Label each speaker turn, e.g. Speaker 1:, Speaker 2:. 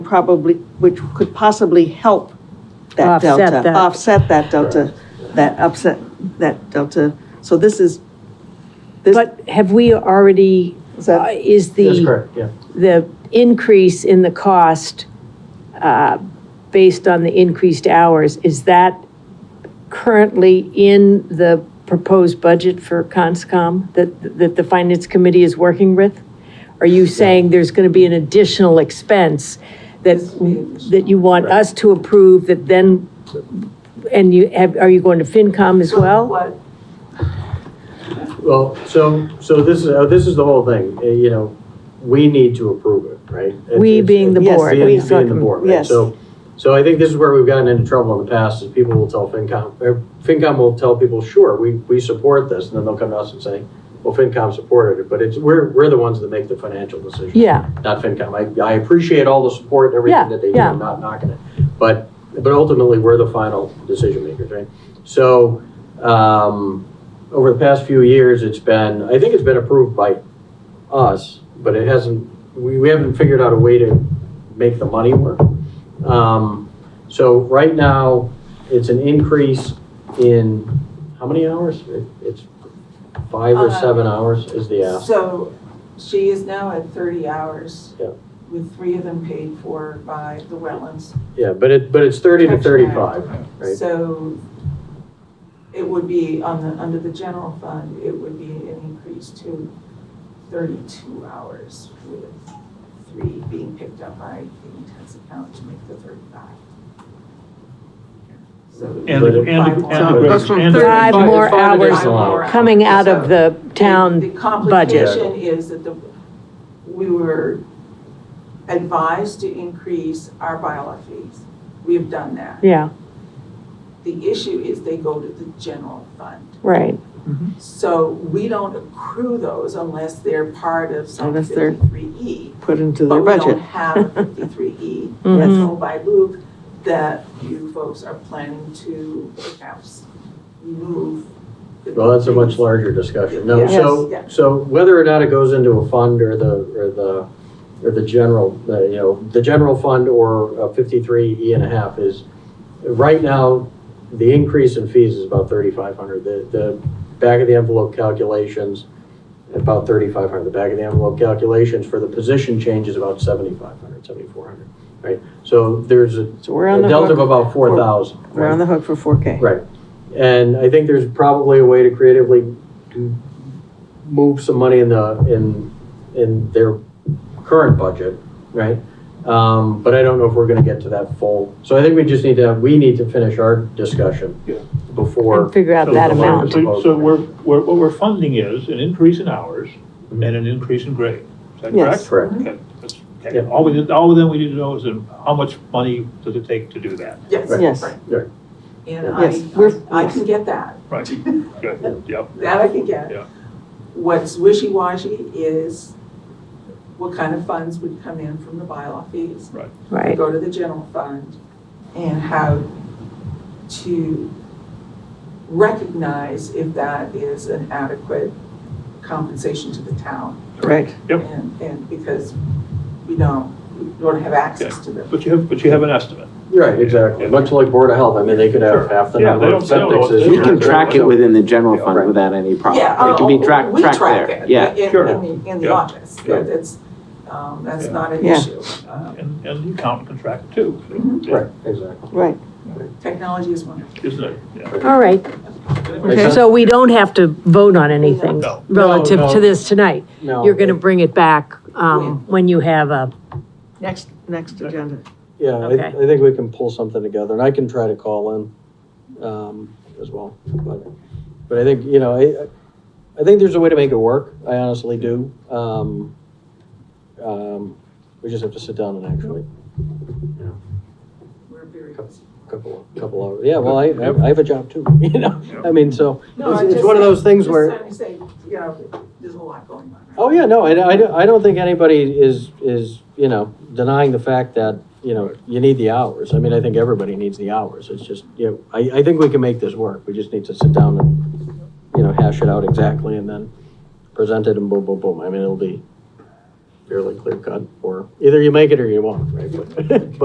Speaker 1: probably, which could possibly help that
Speaker 2: Offset
Speaker 1: delta.
Speaker 2: that.
Speaker 1: Offset that delta, that upset, that delta. So this is, this,
Speaker 2: But have we already,
Speaker 1: is
Speaker 2: uh,
Speaker 1: that-
Speaker 2: is
Speaker 3: That's
Speaker 2: the,
Speaker 3: correct, yeah.
Speaker 2: the increase in the cost uh, based on the increased hours, is that currently in the proposed budget for CONSCOM that, that the Finance Committee is working with? Are you saying there's going to be an additional expense that, that you want
Speaker 3: Right.
Speaker 2: us to approve that then, and you, have are you going to FinCom as well?
Speaker 3: Well, so, so this is, uh, this is the whole thing, uh, you know, we need to approve it, right? It's-
Speaker 2: We
Speaker 3: it's-
Speaker 2: being the
Speaker 3: it's
Speaker 1: board.
Speaker 3: Being,
Speaker 1: We-
Speaker 3: being the board, right?
Speaker 1: Yes.
Speaker 3: So, so I think this is where we've gotten into trouble in the past, is people will tell FinCom, or FinCom will tell people, sure, we, we support this, and then they'll come to us and say, well, FinCom supported it, but it's, we're, we're the ones that make the financial decision.
Speaker 2: Yeah,
Speaker 3: Not FinCom, I, I appreciate all the support, and
Speaker 2: Yeah,
Speaker 3: everything that they do,
Speaker 2: yeah.
Speaker 3: I'm not knocking it, but, but ultimately, we're the final decision makers, right? So, um, over the past few years, it's been, I think it's been approved by us, but it hasn't, we, we haven't figured out a way to make the money work. Um, so right now, it's an increase in, how many hours? It- It's five or
Speaker 4: Uh,
Speaker 3: seven hours is the ask.
Speaker 4: So she is now at 30 hours.
Speaker 3: Yeah.
Speaker 4: With three of them paid for by the wetlands.
Speaker 3: Yeah, but it, but it's thirty to
Speaker 4: Tax
Speaker 3: thirty-five, right?
Speaker 4: So it would be on the, under the general fund, it would be an increase to 32 hours with three being picked up by the intensive account to make the 35. So
Speaker 5: And,
Speaker 3: But it-
Speaker 5: and, and.
Speaker 1: That's from
Speaker 5: and-
Speaker 2: Five
Speaker 3: It's
Speaker 2: more
Speaker 3: five
Speaker 2: hours
Speaker 3: additional
Speaker 2: coming out of the
Speaker 4: The
Speaker 2: town budget.
Speaker 4: complication is that the, we were advised to increase our bylaw fees. We have done that.
Speaker 2: Yeah,
Speaker 4: The issue is they go to the general fund.
Speaker 2: right.
Speaker 4: So we don't accrue those unless they're part of some
Speaker 1: Unless they're-
Speaker 4: fifty-three E.
Speaker 1: put into
Speaker 4: But
Speaker 1: their
Speaker 4: we don't
Speaker 1: budget.
Speaker 4: have a fifty-three E, that's
Speaker 2: Mhm.
Speaker 4: owned by Luke, that you folks are planning to perhaps remove. the-
Speaker 3: Well, that's a much larger discussion. No,
Speaker 4: Yes.
Speaker 3: so,
Speaker 4: Yes.
Speaker 3: so whether or not it goes into a fund or the, or the, or the general, uh, you know, the general fund or fifty-three E and a half is, right now, the increase in fees is about thirty-five hundred. The, the back of the envelope calculations, about thirty-five hundred. The back of the envelope calculations for the position change is about seventy-five hundred, seventy-four hundred, right? So there's a
Speaker 1: So we're on
Speaker 3: a
Speaker 1: the
Speaker 3: delta of
Speaker 1: hook,
Speaker 3: about four thousand.
Speaker 1: we're on the hook for 4K.
Speaker 3: Right. And I think there's probably a way to creatively to move some money in the, in, in their current budget, right? Um, but I don't know if we're gonna get to that full. So I think we just need to, we need to finish our discussion
Speaker 5: Yeah.
Speaker 2: And
Speaker 3: before,
Speaker 2: figure out
Speaker 5: So
Speaker 2: that
Speaker 5: the-
Speaker 2: amount.
Speaker 5: So, so we're, we're, what we're funding is an increase in hours and an increase in grade. Is that
Speaker 1: Yes.
Speaker 5: correct?
Speaker 3: correct?
Speaker 5: Okay, that's- okay.
Speaker 3: Yeah.
Speaker 5: All we, did- all then we need to know is um, how much money does it take to do that?
Speaker 4: Yes.
Speaker 3: Right.
Speaker 1: Yes.
Speaker 4: right.
Speaker 3: Right.
Speaker 4: And
Speaker 1: Yes, we're-
Speaker 4: I, I can get that,
Speaker 5: Right, good, yep.
Speaker 4: that I can get.
Speaker 5: Yeah.
Speaker 4: What's wishy-washy is what kind of funds would come in from the bylaw fees.
Speaker 2: Right,
Speaker 4: go to the general fund and how to recognize if that is an adequate compensation to the town.
Speaker 1: Right.
Speaker 5: Yep.
Speaker 4: And, and because we don't, we don't have access to them.
Speaker 5: But you have, but you have an estimate.
Speaker 3: Right, exactly. Much like Board of Health, I mean, they could have
Speaker 5: Sure.
Speaker 3: half the
Speaker 5: Yeah,
Speaker 3: number
Speaker 5: they
Speaker 3: of
Speaker 5: don't- they
Speaker 3: septic
Speaker 5: don't know- they
Speaker 3: systems.
Speaker 5: don't
Speaker 6: You can track it within the general
Speaker 3: Yeah,
Speaker 6: fund
Speaker 3: right.
Speaker 6: without any problem.
Speaker 4: Yeah,
Speaker 6: It can be
Speaker 4: oh,
Speaker 6: tracked,
Speaker 4: we
Speaker 6: tracked
Speaker 4: track
Speaker 6: there.
Speaker 4: it
Speaker 6: Yeah,
Speaker 4: in-
Speaker 5: sure.
Speaker 4: In, the- in the
Speaker 5: Yeah.
Speaker 4: office,
Speaker 5: Yeah.
Speaker 4: That- that's, um, that's
Speaker 5: Yeah.
Speaker 4: not an
Speaker 1: Yeah.
Speaker 4: issue. Uh,
Speaker 5: And, and the accountant can track it too. so,
Speaker 4: Mhm.
Speaker 5: yeah,
Speaker 3: Right,
Speaker 2: Mm-hmm.
Speaker 3: exactly.
Speaker 1: Right.
Speaker 4: Technology is wonderful.
Speaker 5: Isn't it? Yeah.
Speaker 2: all right.
Speaker 3: Okay.
Speaker 2: So we don't have to vote on anything
Speaker 5: No.
Speaker 2: relative
Speaker 3: No, no.
Speaker 2: to this tonight.
Speaker 3: No,
Speaker 2: You're going to bring it back um, when you have a,
Speaker 1: Next, next agenda.
Speaker 3: Yeah, I,
Speaker 2: Okay.
Speaker 3: I think we can pull something together, and I can try to call in, um, as well, but, but I think, you know, I, I think there's a way to make it work, I honestly do, um, um, we just have to sit down and actually,
Speaker 4: We're very.
Speaker 3: couple, couple hours, yeah, well, I, I have a job too, you know, I mean, so,
Speaker 4: No,
Speaker 3: it's,
Speaker 4: I'm
Speaker 3: it's
Speaker 4: just
Speaker 3: one of those things
Speaker 4: Just
Speaker 3: where.
Speaker 4: trying to say, you know, there's a lot going on. right
Speaker 3: Oh, yeah, no, I, I don't- I don't think anybody is, is, you know, denying the fact that, you know, you need the hours. I mean, I think everybody needs the hours. It's just, you know, I, I think we can make this work. We just need to sit down and, you know, hash it out exactly and then present it and boom, boom, boom. I mean, it'll be, fairly clear cut, or either you make it or you won't, right? But-